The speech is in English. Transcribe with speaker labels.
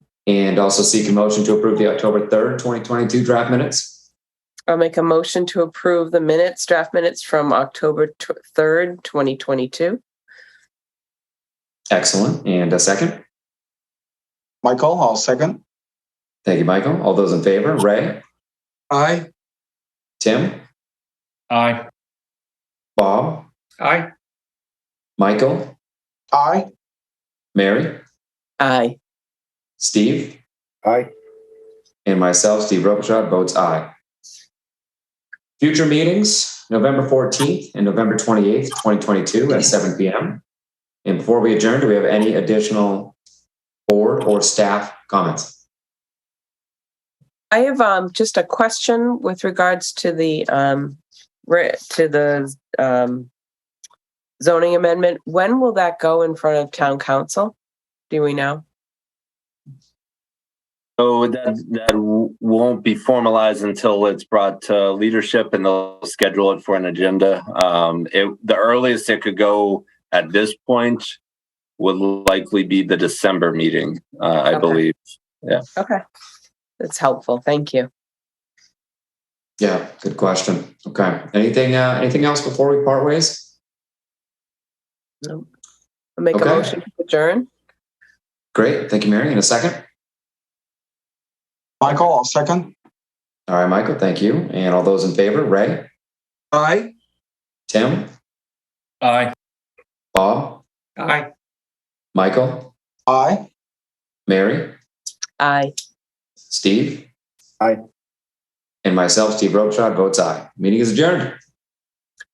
Speaker 1: And also seek a motion to approve the October 3rd, 2022 draft minutes.
Speaker 2: I'll make a motion to approve the minutes, draft minutes from October tw- 3rd, 2022.
Speaker 1: Excellent. And a second.
Speaker 3: Michael, I'll second.
Speaker 1: Thank you, Michael. All those in favor, Ray,
Speaker 3: Aye.
Speaker 1: Tim,
Speaker 4: Aye.
Speaker 1: Bob,
Speaker 4: Aye.
Speaker 1: Michael,
Speaker 3: Aye.
Speaker 1: Mary,
Speaker 2: Aye.
Speaker 1: Steve,
Speaker 5: Aye.
Speaker 1: and myself, Steve Robichaud, votes aye. Future meetings, November 14th and November 28th, 2022 at 7 p.m. And before we adjourn, do we have any additional board or staff comments?
Speaker 2: I have um, just a question with regards to the um, re- to the um, zoning amendment. When will that go in front of town council? Do we know?
Speaker 6: So that that w- won't be formalized until it's brought to leadership, and they'll schedule it for an agenda. Um, it, the earliest it could go at this point would likely be the December meeting, uh, I
Speaker 2: Okay.
Speaker 6: believe.
Speaker 2: Okay. That's helpful. Thank you.
Speaker 1: Yeah, good question. Okay. Anything uh, anything else before we part ways?
Speaker 2: I'll make
Speaker 1: Okay.
Speaker 2: a motion to adjourn.
Speaker 1: Great. Thank you, Mary. In a second.
Speaker 3: Michael, I'll second.
Speaker 1: All right, Michael, thank you. And all those in favor, Ray,
Speaker 3: Aye.
Speaker 1: Tim,
Speaker 4: Aye.
Speaker 1: Bob,
Speaker 4: Aye.
Speaker 1: Michael,
Speaker 3: Aye.
Speaker 1: Mary,
Speaker 2: Aye.
Speaker 1: Steve?
Speaker 5: Aye.
Speaker 1: And myself, Steve Robichaud, votes aye. Meeting is adjourned.